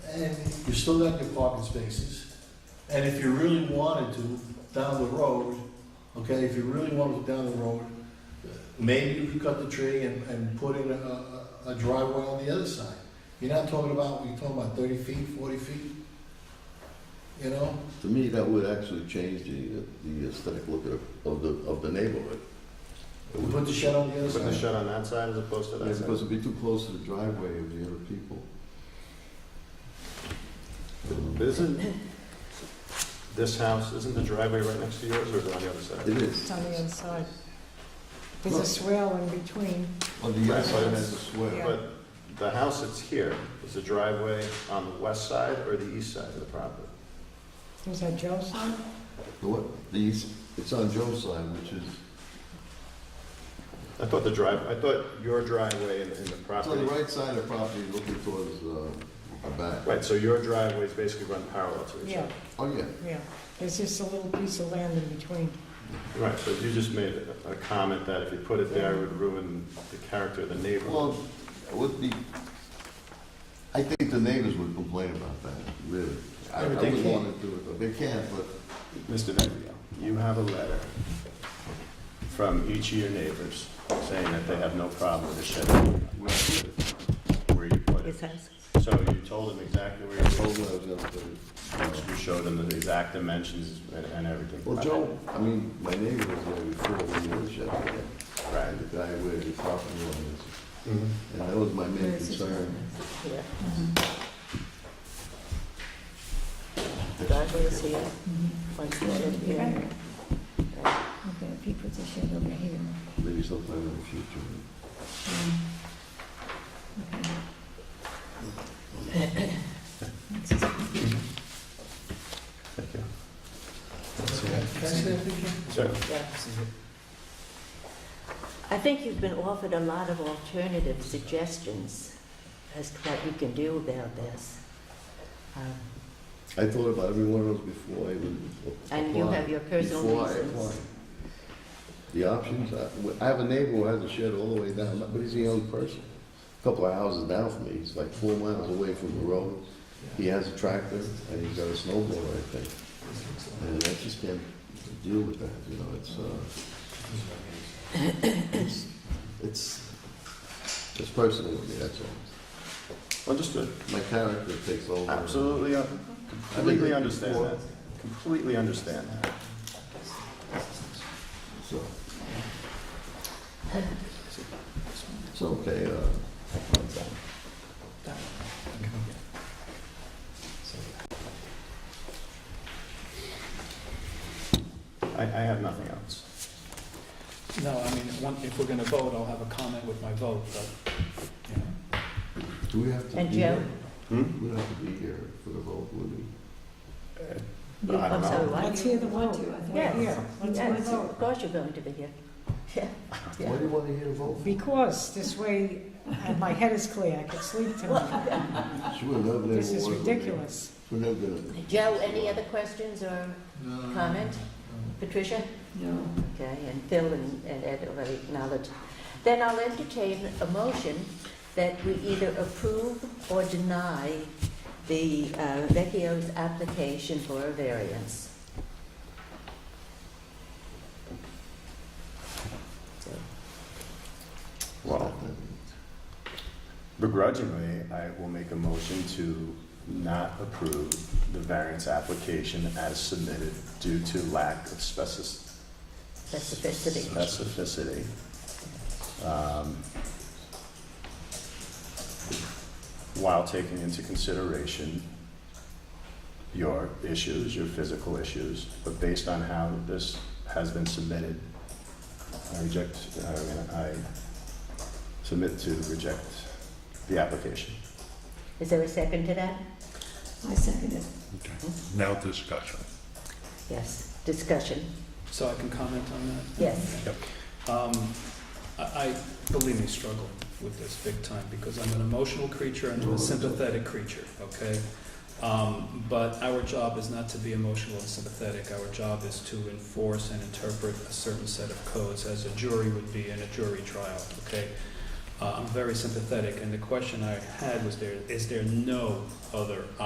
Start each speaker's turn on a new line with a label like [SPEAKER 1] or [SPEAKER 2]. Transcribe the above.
[SPEAKER 1] and you still got your parking spaces. And if you really wanted to, down the road, okay, if you really wanted to down the road, maybe you could cut the tree and, and put in a, a- a driveway on the other side. You're not talking about, you're talking about thirty feet, forty feet, you know?
[SPEAKER 2] To me, that would actually change the, the aesthetic look of, of the, of the neighborhood. It would-
[SPEAKER 1] Put the shed on the other
[SPEAKER 3] Put the
[SPEAKER 1] side.
[SPEAKER 3] shed on that side as opposed to
[SPEAKER 2] Yeah,
[SPEAKER 3] that side.
[SPEAKER 2] because it'd be too close to the driveway of the other people.
[SPEAKER 3] But Isn't this house, isn't the driveway right next to yours or is it on the other side?
[SPEAKER 2] It
[SPEAKER 4] It's
[SPEAKER 2] is.
[SPEAKER 4] on the inside. There's a swale in between.
[SPEAKER 2] On the outside, it has a swell.
[SPEAKER 4] Yeah.
[SPEAKER 3] But the house that's here, is the driveway on the west side or the east side of the property?
[SPEAKER 4] Was that Joe's son?
[SPEAKER 2] The what, the east, it's on Joe's side, which is,
[SPEAKER 3] I thought the drive, I thought your driveway and and
[SPEAKER 2] it's
[SPEAKER 3] the
[SPEAKER 2] on
[SPEAKER 3] property.
[SPEAKER 2] the right side of the property looking towards, uh, the back.
[SPEAKER 3] Right, so your driveways basically run parallel to each
[SPEAKER 4] Yeah,
[SPEAKER 3] other.
[SPEAKER 2] Oh, yeah.
[SPEAKER 4] yeah. There's just a little piece of land in between.
[SPEAKER 3] Right, so you just made a- a comment that if you put it there, it would ruin the character of the neighborhood.
[SPEAKER 2] Well, it would be, I think the neighbors would complain about that, really. I I
[SPEAKER 3] Yeah, but they
[SPEAKER 2] wouldn't
[SPEAKER 3] can't.
[SPEAKER 2] want to do it, but they can't, but
[SPEAKER 3] Mr. Vembrio, you have a letter from each of your neighbors saying that they have no problem with the shed where you put it. So you told them exactly where you
[SPEAKER 2] I told
[SPEAKER 3] told
[SPEAKER 2] them I was gonna do it.
[SPEAKER 3] them, you showed them the exact dimensions and- and everything.
[SPEAKER 2] Well, Joe, I mean, my neighbor was there before when the other shed was there,
[SPEAKER 3] Right.
[SPEAKER 2] and the guy where the property line is,
[SPEAKER 3] Mhm.
[SPEAKER 2] and that was my main
[SPEAKER 4] There's his
[SPEAKER 2] concern.
[SPEAKER 4] Yeah.
[SPEAKER 5] driveway is here, like the shed here.
[SPEAKER 6] Okay, if he puts a shed over here.
[SPEAKER 2] Maybe sometime in the future.
[SPEAKER 3] Thank you.
[SPEAKER 1] Can I see that picture?
[SPEAKER 3] Sir,
[SPEAKER 5] Yeah. I think you've been offered a lot of alternative suggestions as to what you can do about this. Um,
[SPEAKER 2] I thought about every one of those before I even applied.
[SPEAKER 5] And you have your personal
[SPEAKER 2] Before I
[SPEAKER 5] reasons.
[SPEAKER 2] applied. The options, I I have a neighbor who has a shed all the way down, but he's a young person. a Couple of houses down from me, he's like four miles away from the road. He has a tractor and he's got a snowblower, I think. And I just can't deal with that, you know, it's, uh, it's- it's, it's personal with me, that's all.
[SPEAKER 3] Understood.
[SPEAKER 2] My character takes over.
[SPEAKER 3] Absolutely, uh, completely understand that. Completely understand that.
[SPEAKER 2] So. It's okay, uh,
[SPEAKER 3] I, I have nothing else.
[SPEAKER 7] No, I mean, if one- if we're going to vote, I'll have a comment with my vote, but, you know.
[SPEAKER 2] do we have to
[SPEAKER 5] And
[SPEAKER 2] be
[SPEAKER 5] Joe?
[SPEAKER 2] here?
[SPEAKER 3] Hmm?
[SPEAKER 2] We don't have to be here for the vote, would we?
[SPEAKER 3] But I don't
[SPEAKER 5] I'm sorry,
[SPEAKER 3] know.
[SPEAKER 5] what?
[SPEAKER 4] Let's hear the vote.
[SPEAKER 5] Yeah.
[SPEAKER 4] Yeah. Let's hear the
[SPEAKER 5] Yes,
[SPEAKER 4] vote.
[SPEAKER 5] of course you're going to be here.
[SPEAKER 2] Why do you want to hear the vote?
[SPEAKER 4] Because this way, uh, my head is clear, I could sleep tonight.
[SPEAKER 2] She would have never
[SPEAKER 4] This
[SPEAKER 2] been
[SPEAKER 4] is
[SPEAKER 2] awarded with me.
[SPEAKER 4] ridiculous.
[SPEAKER 2] We're never gonna-
[SPEAKER 5] Joe, any other questions or
[SPEAKER 1] No, no, no,
[SPEAKER 5] Comment?
[SPEAKER 1] no.
[SPEAKER 5] Patricia?
[SPEAKER 6] No.
[SPEAKER 5] Okay, and Phil and and Ed already acknowledged. Then I'll entertain a motion that we either approve or deny the uh, Vecchio's application for a variance. So,
[SPEAKER 3] Well, begrudgingly, I will make a motion to not approve the variance application as submitted due to lack of specific-
[SPEAKER 5] Specificity.
[SPEAKER 3] specificity. Um, While taking into consideration your issues, your physical issues, but based on how this has been submitted, I reject, I mean, I submit to reject the application.
[SPEAKER 5] Is there a second to that?
[SPEAKER 6] I second it.
[SPEAKER 8] Now discussion.
[SPEAKER 5] Yes, discussion,
[SPEAKER 7] So I can comment on that?
[SPEAKER 5] yes.
[SPEAKER 7] Um, I, I, believe me, struggle with this big time, because I'm an emotional creature and I'm a sympathetic creature, okay? Um, but our job is not to be emotional and sympathetic, our job is to enforce and interpret a certain set of codes, as a jury would be in a jury trial, okay? Uh, I'm very sympathetic, and the question I had was there, is there no other